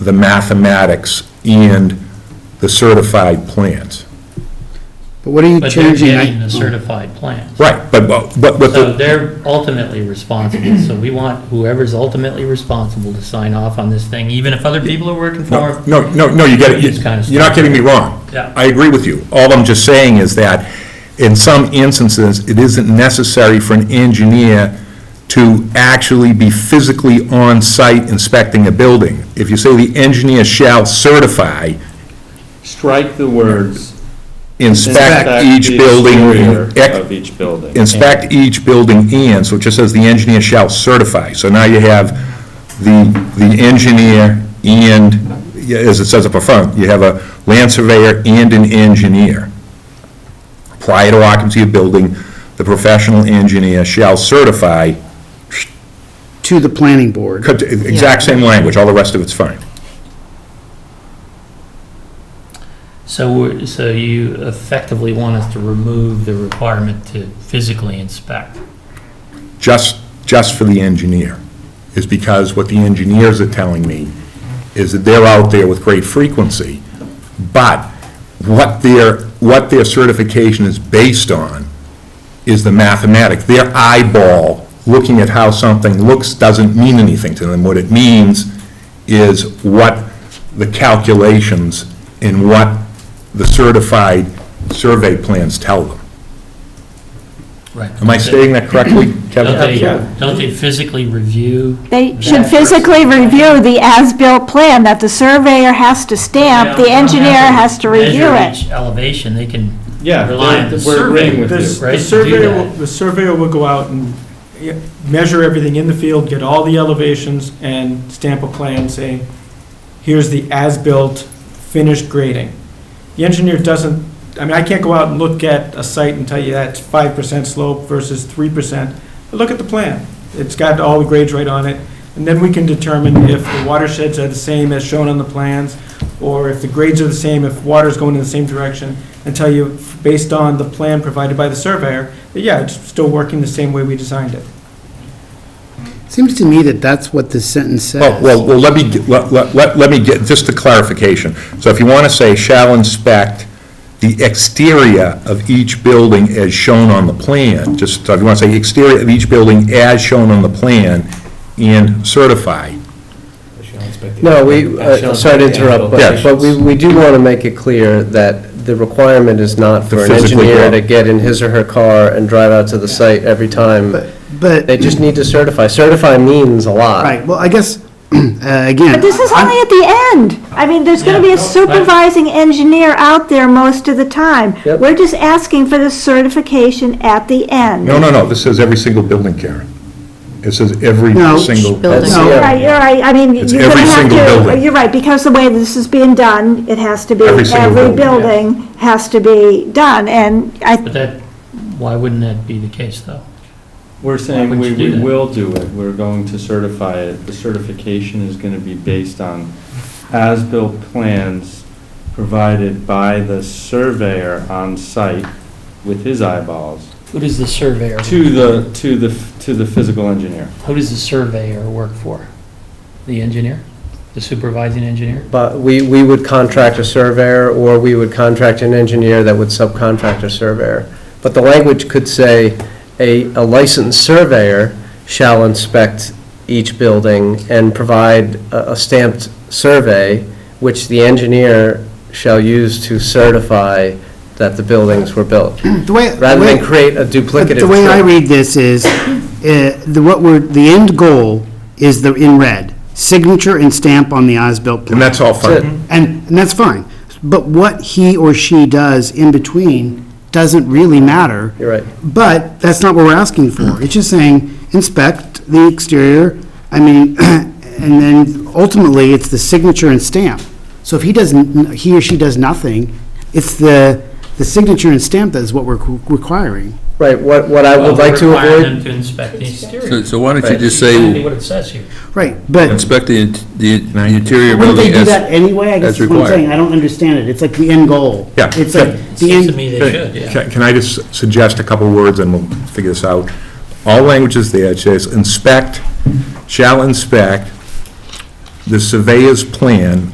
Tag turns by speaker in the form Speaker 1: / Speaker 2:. Speaker 1: the mathematics and the certified plans.
Speaker 2: But what are you
Speaker 3: But they're
Speaker 2: changing?
Speaker 3: getting the certified plans.
Speaker 1: Right, but, but, but
Speaker 3: So
Speaker 1: the,
Speaker 3: they're ultimately responsible, so we want whoever's ultimately responsible to sign off on this thing, even if other people are working for
Speaker 1: no,
Speaker 3: them.
Speaker 1: no, no, no, you get it,
Speaker 3: It's kinda
Speaker 1: you're not getting me wrong.
Speaker 3: Yeah.
Speaker 1: I agree with you. All I'm just saying is that in some instances, it isn't necessary for an engineer to actually be physically on-site inspecting a building. If you say the engineer shall certify,
Speaker 4: Strike the words.
Speaker 1: inspect each
Speaker 4: the
Speaker 1: building,
Speaker 4: exterior
Speaker 1: ex-
Speaker 4: Of each building.
Speaker 1: inspect each building and, so it just says the engineer shall certify. So now you have the, the engineer and, yeah, as it says up front, you have a land surveyor and an engineer. Prior to occupancy of building, the professional engineer shall certify,
Speaker 2: To the planning board.
Speaker 1: cut- exact same language, all the rest of it's fine.
Speaker 3: So, we're- so you effectively want us to remove the requirement to physically inspect.
Speaker 1: just, just for the engineer, is because what the engineers are telling me is that they're out there with great frequency, but what their, what their certification is based on is the mathematic. Their eyeball, looking at how something looks, doesn't mean anything to them. What it means is what the calculations and what the certified survey plans tell them.
Speaker 3: Right.
Speaker 1: Am I stating that correctly, Kevin?
Speaker 3: Don't they, don't they physically review?
Speaker 5: They should
Speaker 3: Yeah.
Speaker 5: physically review the as-built plan that the surveyor has to stamp,
Speaker 3: They
Speaker 5: the
Speaker 3: don't have to
Speaker 5: engineer has to review
Speaker 3: Measure
Speaker 5: it.
Speaker 3: each elevation, they can
Speaker 4: Yeah,
Speaker 3: rely on the
Speaker 4: we're agreeing
Speaker 3: survey.
Speaker 4: with
Speaker 6: This-
Speaker 3: right,
Speaker 6: The
Speaker 3: to do
Speaker 6: surveyor,
Speaker 3: that.
Speaker 6: will- the surveyor will go out and yeah, measure everything in the field, get all the elevations, and stamp a plan saying, here's the as-built finished grading. The engineer doesn't, I mean, I can't go out and look at a site and tell you that's five percent slope versus three percent. But Look at the plan. It's got all the grades right on it, and then we can determine if the watersheds are the same as shown on the plans, or if the grades are the same, if water's going in the same direction, and tell you, based on the plan provided by the surveyor, that, yeah, it's still working the same way we designed it.
Speaker 2: Seems to me that that's what this sentence
Speaker 1: Oh,
Speaker 7: Oh,
Speaker 1: Well,
Speaker 2: says.
Speaker 1: well, well, let me, get- let, let- let, let me get, just a clarification. So if you want to say shall inspect the exterior of each building as shown on the plan, just, so if you want to say exterior of each building as shown on the plan and certify.
Speaker 7: No, we, uh, sorry to interrupt,
Speaker 1: Yes.
Speaker 7: but, but we, we do want to make it clear that the requirement is not for an
Speaker 1: physically go
Speaker 7: engineer
Speaker 1: out.
Speaker 7: to get in his or her car and drive out to the site every time. They
Speaker 2: But,
Speaker 7: just need to certify. Certify means a lot.
Speaker 2: right, well, I guess, uh,
Speaker 5: But
Speaker 2: again,
Speaker 5: this is only at the end. I mean, there's gonna be
Speaker 3: Yeah,
Speaker 5: a
Speaker 3: no, right.
Speaker 5: supervising engineer out there most of the time.
Speaker 7: Yep.
Speaker 5: We're just asking for the certification at the end.
Speaker 1: No, no, no, this says every single building, Karen. It says every
Speaker 2: No.
Speaker 1: single.
Speaker 7: That's- uh,
Speaker 2: No.
Speaker 7: yeah.
Speaker 5: Right, you're right, I mean,
Speaker 1: It's
Speaker 5: you're gonna
Speaker 1: every
Speaker 5: have
Speaker 1: single
Speaker 5: to,
Speaker 1: building.
Speaker 5: you're right, because the way this is being done, it has to be,
Speaker 1: Every single
Speaker 5: every
Speaker 1: building.
Speaker 5: building has to be done, and I
Speaker 3: But that, why wouldn't that be the case, though?
Speaker 4: We're saying
Speaker 3: would
Speaker 4: we
Speaker 3: you do
Speaker 4: we
Speaker 3: that?
Speaker 4: will do it. We're going to certify it. The certification is going to be based on as-built plans provided by the surveyor on site with his eyeballs
Speaker 3: Who does the surveyor,
Speaker 4: to the, to the, to the physical engineer.
Speaker 3: who does the surveyor work for? The engineer? The supervising engineer?
Speaker 7: But we, we would contract a surveyor, or we would contract an engineer that would subcontract a surveyor. But the language could say, a, a licensed surveyor shall inspect each building and provide a a stamped survey, which the engineer shall use to certify that the buildings were built,
Speaker 2: the way. the
Speaker 7: rather
Speaker 2: way-
Speaker 7: than create a
Speaker 2: But
Speaker 7: duplicative.
Speaker 2: The way I
Speaker 7: trip.
Speaker 2: read this is, uh, the, what we're, the end goal is the, in red, signature and stamp on the as-built
Speaker 1: And
Speaker 2: plan.
Speaker 1: that's all
Speaker 7: That's it.
Speaker 1: fine.
Speaker 2: And, and that's fine. But what he or she does in between doesn't really matter.
Speaker 7: You're right.
Speaker 2: But that's not what we're asking for. It's just saying inspect the exterior, I mean, and then ultimately, it's the signature and stamp. So if he doesn't, he or she does nothing, it's the, the signature and stamp that is what we're requiring.
Speaker 7: Right, what, what I would like to
Speaker 3: Require
Speaker 7: avoid,
Speaker 3: them to inspect the exterior.
Speaker 8: So- So why don't you
Speaker 7: Right.
Speaker 8: just
Speaker 3: Exactly
Speaker 8: say,
Speaker 3: what it says here.
Speaker 2: Right, but
Speaker 8: inspect the in- the the interior
Speaker 2: wouldn't they
Speaker 8: building
Speaker 2: do that
Speaker 8: as,
Speaker 2: anyway? I guess
Speaker 8: as
Speaker 2: that's what I'm
Speaker 8: required.
Speaker 2: saying. I don't understand it. It's like the end goal.
Speaker 1: Yeah.
Speaker 2: It's like the
Speaker 3: Seems to
Speaker 2: end,
Speaker 3: me they should, yeah.
Speaker 1: Can can I just suggest a couple words and we'll figure this out? All language is there, it says inspect, shall inspect the surveyor's plan